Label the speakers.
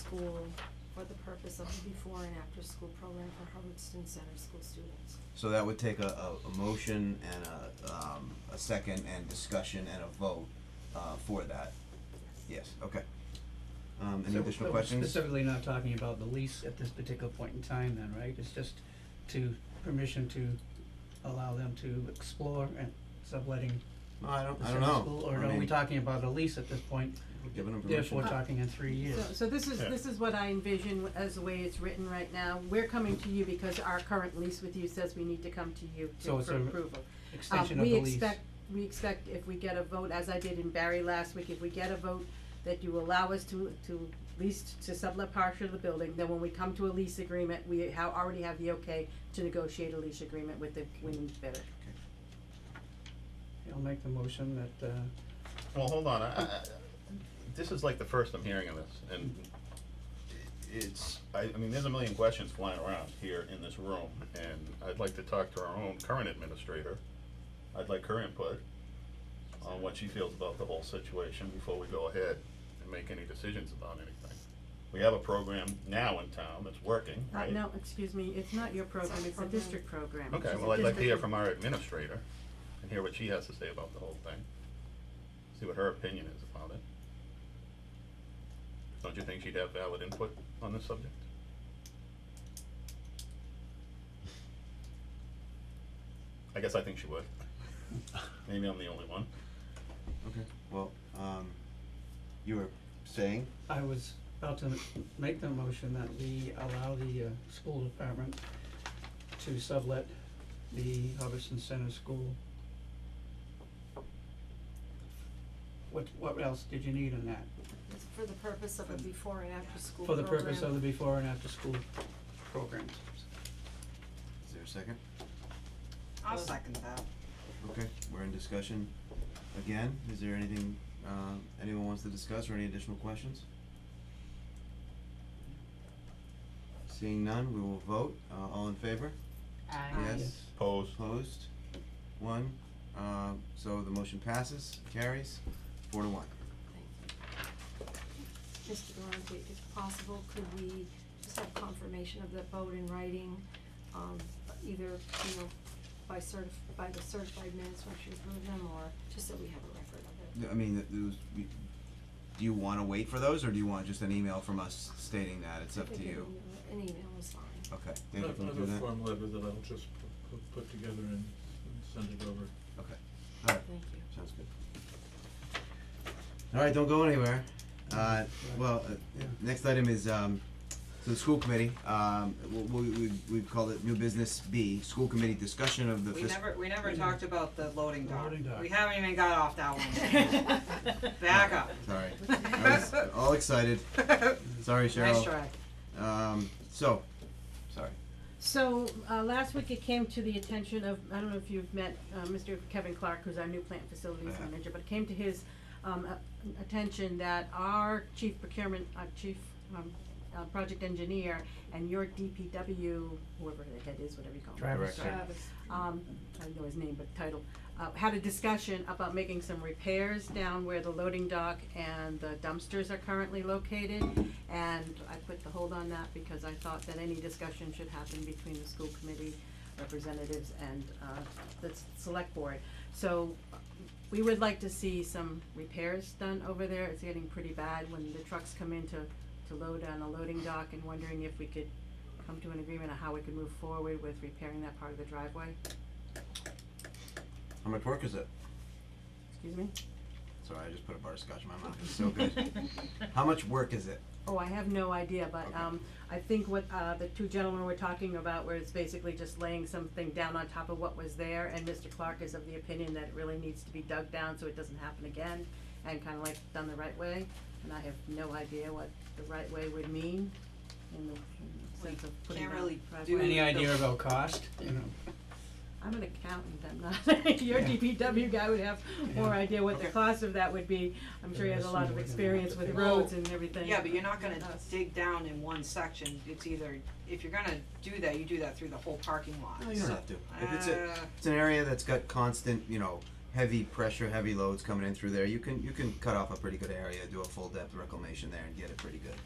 Speaker 1: school for the purpose of the before and after school program for Hubbardston Center School students.
Speaker 2: So that would take a, a, a motion and a, um, a second and discussion and a vote, uh, for that. Yes, okay. Um, any
Speaker 3: So-
Speaker 2: additional
Speaker 3: but we're
Speaker 2: questions?
Speaker 3: Specifically not talking about the lease at this particular point in time then, right? It's just to, permission to allow them to explore and subletting
Speaker 2: No, I don't,
Speaker 3: the
Speaker 2: I don't
Speaker 3: center
Speaker 2: know.
Speaker 3: school, or
Speaker 2: I
Speaker 3: are we
Speaker 2: mean,
Speaker 3: talking about a lease at this point?
Speaker 2: we're Giving them
Speaker 3: Therefore,
Speaker 2: permission.
Speaker 3: we're talking in three years.
Speaker 4: So, uh, so this is, this is what I envision w- as the way it's written right now. We're coming to you because our current lease with you says we need to come to you to,
Speaker 3: So it's
Speaker 4: for
Speaker 3: a-
Speaker 4: approval. Um,
Speaker 3: Extension of the lease.
Speaker 4: We expect, we expect if we get a vote, as I did in Barry last week, if we get a vote that you allow us to, to lease, to sublet part of the building, then when we come to a lease agreement, we ha- already have the okay to negotiate a lease agreement with the winning bidder.
Speaker 3: I'll make the motion that, uh,
Speaker 5: Well, hold on, I, I, I- this is like the first I'm hearing of this, and it's, I, I mean, there's a million questions flying around here in this room, and I'd like to talk to our own current administrator. I'd like her input on what she feels about the whole situation before we go ahead and make any decisions about anything. We have a program now in town that's working,
Speaker 4: Uh,
Speaker 5: right?
Speaker 4: no, excuse me, it's not your program, it's the
Speaker 1: program.
Speaker 4: district program.
Speaker 5: Okay,
Speaker 4: It's a
Speaker 5: well, I'd like to hear
Speaker 4: district-
Speaker 5: from our administrator and hear what she has to say about the whole thing. See what her opinion is about it. Don't you think she'd have valid input on this subject? I guess I think she would. Maybe I'm the only one.
Speaker 2: Okay, well, um, you were saying,
Speaker 3: I was about to make the motion that we allow the, uh, school department to sublet the Hubbardston Center School. What, what else did you need in that?
Speaker 1: It's for the purpose of a before and after school
Speaker 3: For the
Speaker 1: program.
Speaker 3: purpose of the before and after school programs.
Speaker 2: is there a second?
Speaker 6: I'll second that.
Speaker 2: Okay, we're in discussion again. Is there anything, uh, anyone wants to discuss or any additional questions? Seeing none, we will vote. Uh, all in favor? Yes.
Speaker 5: Opposed?
Speaker 2: Opposed? One. Uh, so the motion passes, carries, four to one.
Speaker 1: Mr. Durante, if possible, could we just have confirmation of that vote in writing, um, either, you know, by certif- by the certified minutes when she approved them, or just so we have a record of it?
Speaker 2: I mean, th- those, we, do you wanna wait for those or do you want just an email from us stating that? It's
Speaker 1: I
Speaker 2: up to
Speaker 1: think an
Speaker 2: you.
Speaker 1: email- uh, An email is fine.
Speaker 2: Okay,
Speaker 7: I
Speaker 2: David,
Speaker 7: have
Speaker 2: can you do
Speaker 7: a
Speaker 2: that?
Speaker 7: form letter that I'll just pu- pu- put together and and send it over.
Speaker 2: Okay, alright.
Speaker 1: Thank you.
Speaker 2: Sounds good. All right, don't go anywhere. Uh, well, uh,
Speaker 3: Yeah.
Speaker 2: next item is, um, so the school committee, um, we, we, we called it new business B, school committee discussion of the
Speaker 6: We
Speaker 2: fiscal.
Speaker 6: never, we never talked about the loading dock.
Speaker 3: Loading dock.
Speaker 6: We haven't even got off that one. Back up.
Speaker 2: Sorry, I was all excited. Sorry,
Speaker 6: Nice
Speaker 2: Cheryl.
Speaker 6: try.
Speaker 2: Um, so, sorry.
Speaker 4: So, uh, last week it came to the attention of, I don't know if you've met, uh, Mr. Kevin Clark, who's our new plant facilities
Speaker 2: Yeah.
Speaker 4: manager, but it came to his, um, a- attention that our chief procurement, our chief, um, uh, project engineer and your DPW, whoever the head is, whatever you call him.
Speaker 3: Driver.
Speaker 2: Director.
Speaker 1: Travis.
Speaker 4: um, I don't know his name, but title, uh, had a discussion about making some repairs down where the loading dock and the dumpsters are currently located. And I put the hold on that because I thought that any discussion should happen between the school committee representatives and, uh, the s- select board. So uh, we would like to see some repairs done over there. It's getting pretty bad when the trucks come in to, to load on a loading dock and wondering if we could come to an agreement on how we could move forward with repairing that part of the driveway.
Speaker 2: How much work is it?
Speaker 4: Excuse me?
Speaker 2: Sorry, I just put a bar of scotch in my mouth. It's so good. How much work is it?
Speaker 4: Oh, I have no idea, but, um, I think what, uh, the two gentlemen were talking about where it's basically just laying something down on top of what was there, and Mr. Clark is of the opinion that it really needs to be dug down so it doesn't happen again, and kinda like done the right way, and I have no idea what the right way would mean in the, in the sense of putting
Speaker 6: can't
Speaker 4: down
Speaker 6: really
Speaker 4: driveway.
Speaker 6: do
Speaker 3: Any idea about cost, you know?
Speaker 4: I'm an accountant, I'm not, your
Speaker 3: Yeah.
Speaker 4: DPW guy would have more
Speaker 3: Yeah.
Speaker 4: idea what the
Speaker 6: Okay.
Speaker 4: cost of that would be, I'm sure he has a lot of
Speaker 3: Yeah.
Speaker 4: experience with
Speaker 3: Well,
Speaker 4: roads and everything.
Speaker 6: Yeah, but you're not gonna dig down in one section. It's either, if you're gonna do that, you do that through the whole parking lot.
Speaker 2: No, you don't
Speaker 6: So-
Speaker 2: have to. If it's a,
Speaker 6: Oh, Uh,
Speaker 2: it's an area that's got constant, you know, heavy pressure, heavy loads coming in through there, you can, you can cut off a pretty good area, do a full depth reclamation there and get it pretty good.